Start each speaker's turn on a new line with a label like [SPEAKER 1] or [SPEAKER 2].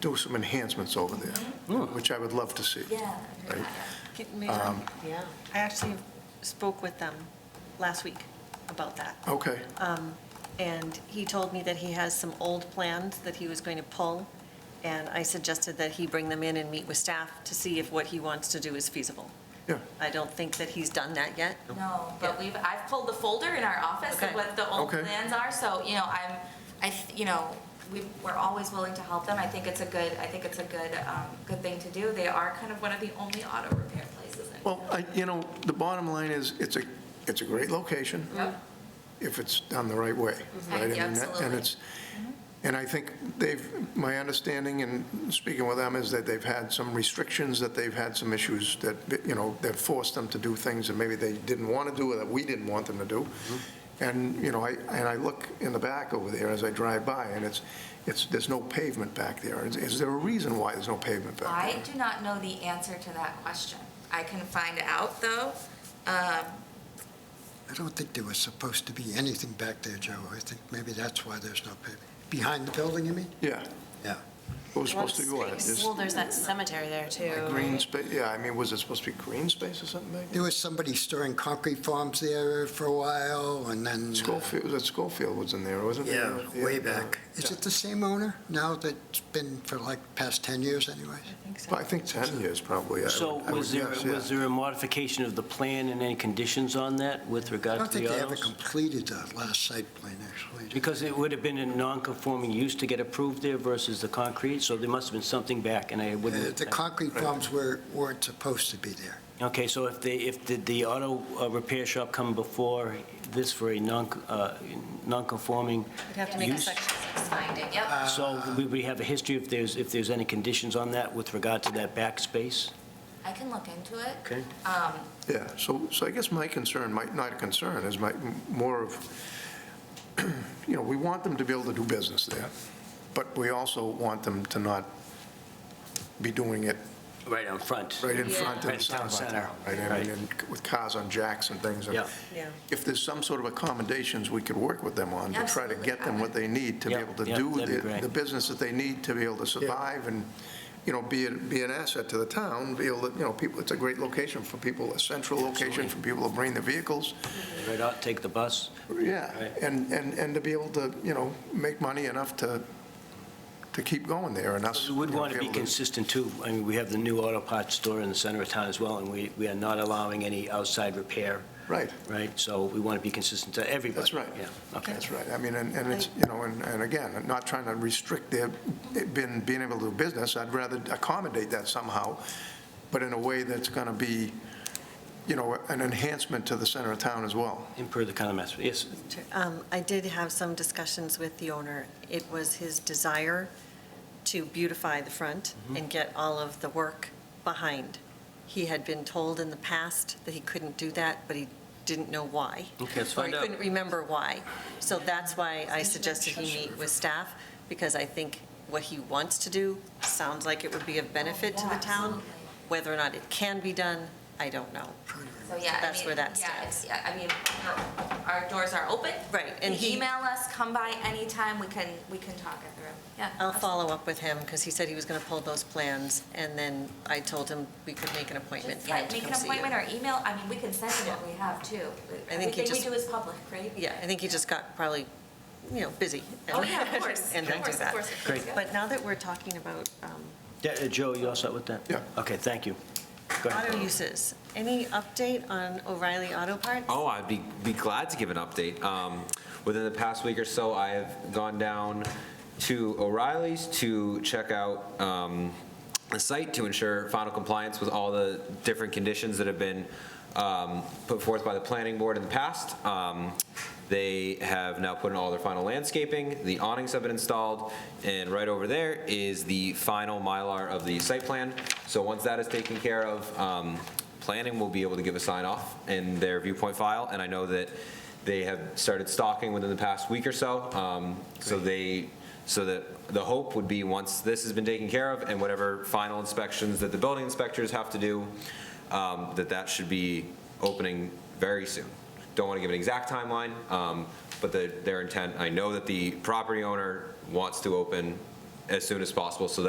[SPEAKER 1] do some enhancements over there, which I would love to see.
[SPEAKER 2] Yeah.
[SPEAKER 1] Right.
[SPEAKER 3] Get me-
[SPEAKER 2] Yeah.
[SPEAKER 3] I actually spoke with them last week about that.
[SPEAKER 1] Okay,
[SPEAKER 3] Um, And he told me that he has some old plans that he was going to pull, and I suggested that he bring them in and meet with staff to see if what he wants to do is feasible.
[SPEAKER 1] yeah,
[SPEAKER 3] I don't think that he's done that yet.
[SPEAKER 2] No, but we've, I've pulled the folder in our office of
[SPEAKER 3] Okay.
[SPEAKER 2] what the old
[SPEAKER 1] Okay.
[SPEAKER 2] plans are, so, you know, I'm, I, th- you know, we, we're always willing to help them. I think it's a good, I think it's a good, um, good thing to do. They are kind of one of the only auto repair places in.
[SPEAKER 1] well, I, you know, the bottom line is, it's a, it's a great location.
[SPEAKER 2] Yep.
[SPEAKER 1] if it's done the right way, right? I mean, that- And
[SPEAKER 2] Absolutely.
[SPEAKER 1] it's, and I think they've, my understanding in speaking with them is that they've had some restrictions, that they've had some issues that, you know, that forced them to do things that maybe they didn't want to do or that we didn't want them to do. And, you know, I, and I look in the back over there as I drive by, and it's, it's, there's no pavement back there. Is- Is there a reason why there's no pavement back there?
[SPEAKER 2] I do not know the answer to that question. I can find out, though. Um,
[SPEAKER 4] I don't think there was supposed to be anything back there, Joe. I think maybe that's why there's no pavement. Behind the building, you mean?
[SPEAKER 1] Yeah,
[SPEAKER 4] Yeah.
[SPEAKER 1] it was supposed to go out. There's
[SPEAKER 5] Well, there's that cemetery there too.
[SPEAKER 1] a Green space, yeah, I mean, was it supposed to be green space or something back there?
[SPEAKER 4] There was somebody storing concrete forms there for a while, and then...
[SPEAKER 1] Schofield, was it Schofield was in there, wasn't it?
[SPEAKER 4] Yeah, way back. Is
[SPEAKER 1] Yeah.
[SPEAKER 4] it the same owner now that's been for like past 10 years anyways?
[SPEAKER 1] Well, I think 10 years probably. I would-
[SPEAKER 6] So
[SPEAKER 1] I
[SPEAKER 6] was
[SPEAKER 1] would
[SPEAKER 6] there,
[SPEAKER 1] guess, yeah.
[SPEAKER 6] was there a modification of the plan and any conditions on that with
[SPEAKER 4] I
[SPEAKER 6] regard
[SPEAKER 4] don't
[SPEAKER 6] to
[SPEAKER 4] think
[SPEAKER 6] the
[SPEAKER 4] they ever
[SPEAKER 6] autos?
[SPEAKER 4] completed that last site plan, actually.
[SPEAKER 6] Because it would have been a non-conforming use to get approved there versus the concrete, so there must have been something back, and I
[SPEAKER 4] Uh,
[SPEAKER 6] wouldn't...
[SPEAKER 4] The concrete forms were, weren't supposed to be there.
[SPEAKER 6] Okay, so if they, if, did the auto uh, repair shop come before this for a non, uh, non-conforming
[SPEAKER 3] We'd have to make a
[SPEAKER 6] use?
[SPEAKER 3] section. Uh,
[SPEAKER 2] Let's find it, yep.
[SPEAKER 6] So
[SPEAKER 4] Uh,
[SPEAKER 6] we- we have a history if there's, if there's any conditions on that with regard to that back space?
[SPEAKER 2] I can look into it.
[SPEAKER 6] Okay.
[SPEAKER 2] Um,
[SPEAKER 1] Yeah, so, so I guess my concern, might not a concern, is my, more of, you know, we want them to be able to do business there, but we also want them to not be doing it
[SPEAKER 6] Right out front.
[SPEAKER 1] right in front of
[SPEAKER 6] Right
[SPEAKER 1] the
[SPEAKER 6] in town
[SPEAKER 1] town center.
[SPEAKER 6] center.
[SPEAKER 1] Right, I mean,
[SPEAKER 6] Right.
[SPEAKER 1] and with cars on jacks and things. and
[SPEAKER 6] Yeah.
[SPEAKER 3] Yeah.
[SPEAKER 1] If there's some sort of accommodations we could work with them on to try to
[SPEAKER 2] Absolutely.
[SPEAKER 1] get them what they need to be
[SPEAKER 6] Yeah,
[SPEAKER 1] able to
[SPEAKER 6] yeah,
[SPEAKER 1] do
[SPEAKER 6] that'd be
[SPEAKER 1] the
[SPEAKER 6] great.
[SPEAKER 1] the business that they need to be able to survive and, you know, be, a- be an asset to the town, be able to, you know, people, it's a great location for people, a central location for people to bring their vehicles.
[SPEAKER 6] Right out, take the bus.
[SPEAKER 1] Yeah,
[SPEAKER 6] Right.
[SPEAKER 1] and, and, and to be able to, you know, make money enough to, to keep going there and us.
[SPEAKER 6] We would
[SPEAKER 1] you know,
[SPEAKER 6] want to be
[SPEAKER 1] able
[SPEAKER 6] consistent too. I mean, we have the new auto parts store in the center of town as well, and we, we are not allowing any outside repair,
[SPEAKER 1] Right.
[SPEAKER 6] right? So we want to be consistent to everybody.
[SPEAKER 1] That's right.
[SPEAKER 6] Yeah, okay.
[SPEAKER 1] That's right. I mean, and, and it's, you know, and, and again, I'm not trying to restrict their, been, being able to do business. I'd rather accommodate that somehow, but in a way that's going to be, you know, an enhancement to the center of town as well.
[SPEAKER 6] And per the kind of master, yes,
[SPEAKER 3] Um, I did have some discussions with the owner. It was his desire to beautify the front
[SPEAKER 6] Mm-hmm.
[SPEAKER 3] and get all of the work behind. He had been told in the past that he couldn't do that, but he didn't know why.
[SPEAKER 6] Okay, let's find
[SPEAKER 3] Or
[SPEAKER 6] out.
[SPEAKER 3] he couldn't remember why. So that's why I suggested he meet with staff, because I think what he wants to do sounds like it would be of benefit to
[SPEAKER 2] yeah,
[SPEAKER 3] the town.
[SPEAKER 2] absolutely.
[SPEAKER 3] Whether or not it can be done, I don't know.
[SPEAKER 2] So, yeah, I
[SPEAKER 3] That's
[SPEAKER 2] mean,
[SPEAKER 3] where that
[SPEAKER 2] yeah, it's-
[SPEAKER 3] stands.
[SPEAKER 2] Yeah, I mean, our- our doors are open.
[SPEAKER 3] Right, and
[SPEAKER 2] You can
[SPEAKER 3] he-
[SPEAKER 2] Email us, come by anytime, we can, we can talk it through. Yeah.
[SPEAKER 3] I'll follow up with him, because he said he was going to pull those plans, and then I told him we could make an appointment for
[SPEAKER 2] Yeah,
[SPEAKER 3] him to
[SPEAKER 2] make an
[SPEAKER 3] come see you.
[SPEAKER 2] appointment or email, I mean, we can send them what we have too.
[SPEAKER 3] I think he
[SPEAKER 2] Everything we
[SPEAKER 3] just-
[SPEAKER 2] do is public, right?
[SPEAKER 3] Yeah, I think he just got probably, you know, busy.
[SPEAKER 2] Oh, yeah, of course.
[SPEAKER 3] And
[SPEAKER 2] Of
[SPEAKER 3] then do
[SPEAKER 2] course, of
[SPEAKER 3] that.
[SPEAKER 2] course, of course,
[SPEAKER 6] Great.
[SPEAKER 2] yeah.
[SPEAKER 3] But now that we're talking about um,
[SPEAKER 6] Yeah, uh, Joe, you all set with that?
[SPEAKER 1] Yeah.
[SPEAKER 6] Okay, thank you. Go ahead.
[SPEAKER 3] auto uses, any update on O'Reilly Auto Parts?
[SPEAKER 7] Oh, I'd be, be glad to give an update. Um, Within the past week or so, I have gone down to O'Reilly's to check out um, the site to ensure final compliance with all the different conditions that have been um, put forth by the planning board in the past. Um, They have now put in all their final landscaping, the awnings have been installed, and right over there is the final Mylar of the site plan. So once that is taken care of, um, planning will be able to give a sign off in their viewpoint file, and I know that they have started stocking within the past week or so. um, So they, so that the hope would be, once this has been taken care of, and whatever final inspections that the building inspectors have to do, um, that that should be opening very soon. Don't want to give an exact timeline, um, but the- their intent, I know that the property owner wants to open as soon as possible, so that